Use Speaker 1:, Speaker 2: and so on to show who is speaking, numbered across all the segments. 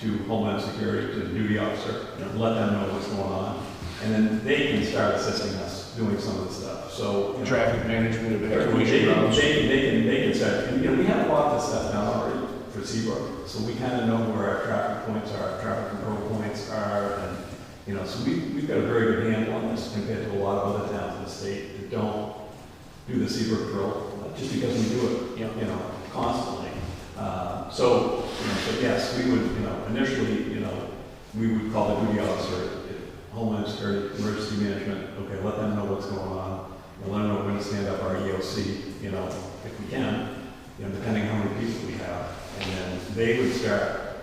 Speaker 1: to Homeland Security, to the duty officer, and let them know what's going on. And then they can start assisting us doing some of the stuff, so. you know,
Speaker 2: Traffic management,
Speaker 1: They,
Speaker 2: evacuation
Speaker 1: can-
Speaker 2: routes.
Speaker 1: they, can- they can, they can start, and, you know, we have a lot of this stuff now already for Seabrook, so we kind of know where our traffic points are, our traffic control points are, and, you know, so we, we've got a very good handle on this compared to a lot of other towns in the state that don't do the Seabrook drill, just because we do it
Speaker 2: Yeah.
Speaker 1: you know, constantly. Uh, So, you know, but yes, we would, you know, initially, you know, we would call the duty officer, if Homeland Security, Emergency Management, okay, let them know what's going on, and let them know when to stand up our EOC, you know, if we can, you know, depending how many people we have. And then they would start,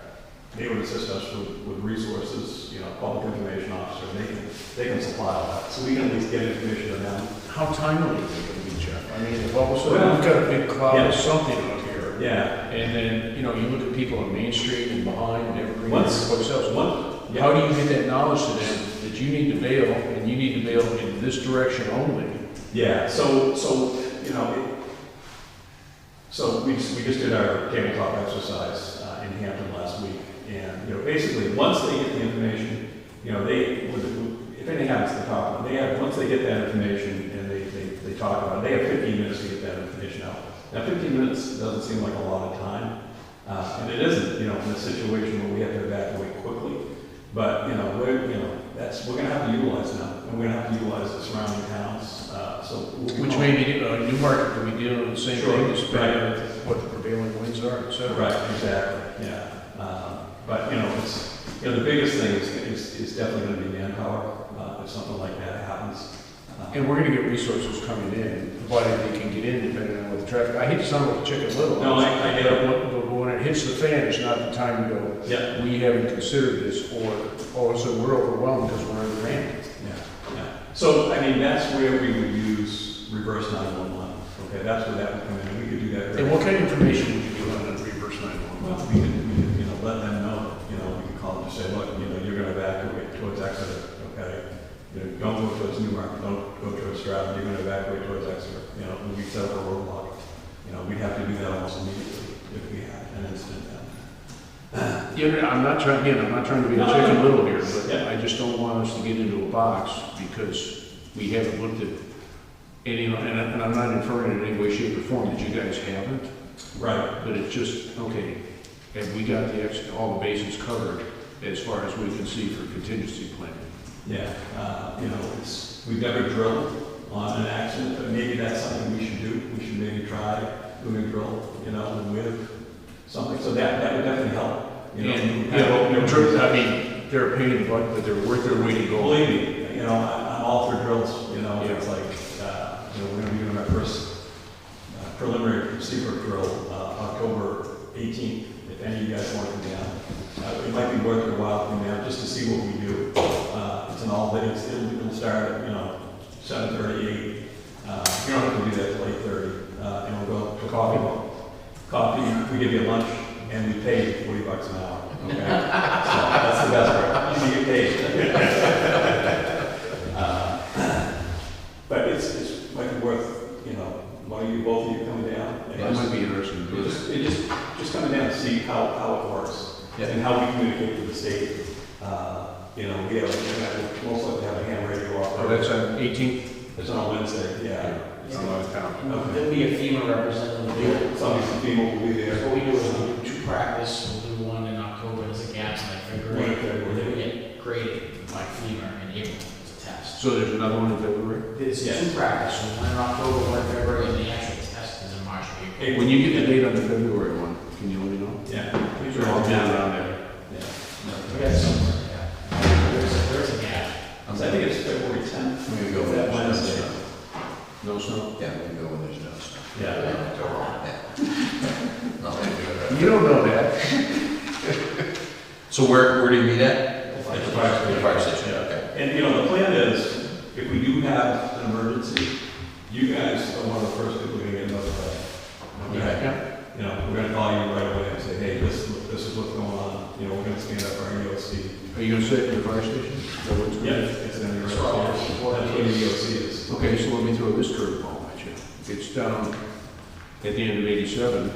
Speaker 1: they would assist us with, with resources, you know, public information officer, they can, they can supply all that. So we can at least get information to them.
Speaker 2: How timely is it gonna be, Jeff? I mean, if all of a sudden we've got a big cloud
Speaker 1: Yeah.
Speaker 2: of something up here,
Speaker 1: Yeah,
Speaker 2: and then, you know, you look at people on Main Street and behind and evergreen and
Speaker 1: Once-
Speaker 2: everybody else.
Speaker 1: one, yeah.
Speaker 2: How do you get that knowledge to them that you need to bail and you need to bail in this direction only?
Speaker 1: Yeah, so, so, you know, it- so we just, we just did our tabletop exercise uh, in Hampton last week. And, you know, basically, once they get the information, you know, they, would- if anything happens to the top one, they have, once they get that information and they, they, they talk about it, they have fifteen minutes to get that information out. Now, fifteen minutes doesn't seem like a lot of time, uh, and it isn't, you know, in a situation where we have to evacuate quickly. But, you know, we're, you know, that's, we're gonna have to utilize now, and we're gonna have to utilize the surrounding towns, uh, so. we'll be
Speaker 2: Which
Speaker 1: calling-
Speaker 2: may be, uh, Newmarket could be dealing with the same thing,
Speaker 1: Sure,
Speaker 2: as
Speaker 1: right.
Speaker 2: what the prevailing winds are, et cetera.
Speaker 1: Right, exactly, yeah. Um, But, you know, it's, you know, the biggest thing is, is, is definitely gonna be manpower, uh, if something like that happens. Uh,
Speaker 2: And we're gonna get resources coming in, provided they can get in depending on what the traffic, I hate to sound like Chicken Little.
Speaker 1: No, I- I get it.
Speaker 2: But when- but when it hits the fan, it's not the time to go,
Speaker 1: Yeah,
Speaker 2: we haven't considered this, or, oh, so we're overwhelmed because we're undermanned.
Speaker 1: yeah, yeah. So, I mean, that's where we would use reverse nine-one-one, okay, that's where that would come in, we could do that. very-
Speaker 2: And what kind of information would you give on a reverse nine-one-one?
Speaker 1: Well, we could, we could, you know, let them know, you know, we could call them and say, look, you know, you're gonna evacuate towards Exeter, okay? You know, don't go towards Newmarket, don't go towards Stroud, you're gonna evacuate towards Exeter, you know, and we set up a roadblock. You know, we'd have to do that almost immediately if we had an incident then.
Speaker 2: You know, I'm not trying, again, I'm not trying to be a
Speaker 1: No, no,
Speaker 2: Chicken
Speaker 1: no.
Speaker 2: Little here, but
Speaker 1: Yeah.
Speaker 2: I just don't want us to get into a box because we haven't looked at any, and I- and I'm not inferring in any way, shape, or form that you guys haven't,
Speaker 1: Right,
Speaker 2: But it's just, okay, have we got the, ex- all the bases covered as far as we can see for contingency planning?
Speaker 1: yeah, uh, you know, it's, we've never drilled on an accident, but maybe that's something we should do. We should maybe try doing a drill, you know, with something, so that, that would definitely help, you know.
Speaker 2: And, you know, in terms- I mean, they're a pain in the butt, but they're worth their weight in gold.
Speaker 1: Believe me, you know, I- I'm all for drills, you know,
Speaker 2: Yeah.
Speaker 1: it's like, uh, you know, we're gonna be doing our first uh, preliminary receiver drill, uh, October eighteenth, if any of you guys want to come down. Uh, it might be worth your while to come down, just to see what we do. Uh, it's an all day, it's, it'll, it'll start at, you know, seven thirty, eight. Uh, you don't have to do that till eight thirty, uh, and we'll go to coffee. Coffee, we give you lunch, and we pay you forty bucks an hour, okay? So that's the best part, you get paid. Uh, But it's, it's might be worth, you know, why you, both of you coming down. and
Speaker 2: That
Speaker 1: just-
Speaker 2: might be interesting to
Speaker 1: it
Speaker 2: do
Speaker 1: just, it just, just coming down to see how, how it works and how we communicate with the state. Uh, You know, we have, we have- most likely have a ham radio
Speaker 2: Oh,
Speaker 1: operator.
Speaker 2: that's on 18?
Speaker 1: It's on Wednesday, yeah.
Speaker 2: It's on my town.
Speaker 1: Okay.
Speaker 3: There'll be a FEMA representative there.
Speaker 1: Some of these people will be there.
Speaker 3: What we do is we do two practice, we'll do one in October as a gaps in
Speaker 1: One in
Speaker 3: February,
Speaker 1: February.
Speaker 3: and then we get graded by FEMA in April as a test.
Speaker 2: So there's another one in February?
Speaker 3: There's
Speaker 1: Yes.
Speaker 3: two practices, one in October, one in February, and the actual test is in March or April.
Speaker 1: Hey,
Speaker 2: When you get the date on the February one, can you let me know?
Speaker 1: Yeah.
Speaker 3: These
Speaker 1: are all
Speaker 2: down around there.
Speaker 1: yeah.
Speaker 3: We got somewhere, yeah. There's, a- there's a gap.
Speaker 1: So I think it's February tenth.
Speaker 4: We can go
Speaker 1: That
Speaker 4: when there's no
Speaker 1: Wednesday.
Speaker 4: snow.
Speaker 2: No snow?
Speaker 4: Yeah, we can go when there's no snow.
Speaker 1: Yeah.
Speaker 4: Go wrong. Not like we're-
Speaker 2: You don't know that.
Speaker 4: So where, where do you meet at?
Speaker 1: At the fire station.
Speaker 4: The fire station,
Speaker 1: Yeah.
Speaker 4: okay.
Speaker 1: And, you know, the plan is, if we do have an emergency, you guys are one of the first people to get notified. Okay?
Speaker 2: Yeah.
Speaker 1: you know, we're gonna call you right away and say, hey, this, this is what's going on, you know, we're gonna stand up our E EOC.
Speaker 2: Are you gonna sit in the fire station? Is that what it's gonna be?
Speaker 1: It's in your, that's
Speaker 3: That's
Speaker 1: what
Speaker 3: where all
Speaker 1: the
Speaker 3: the support
Speaker 1: EOC is.
Speaker 2: Okay, so let me throw this curveball at you. It's down at the end of 87.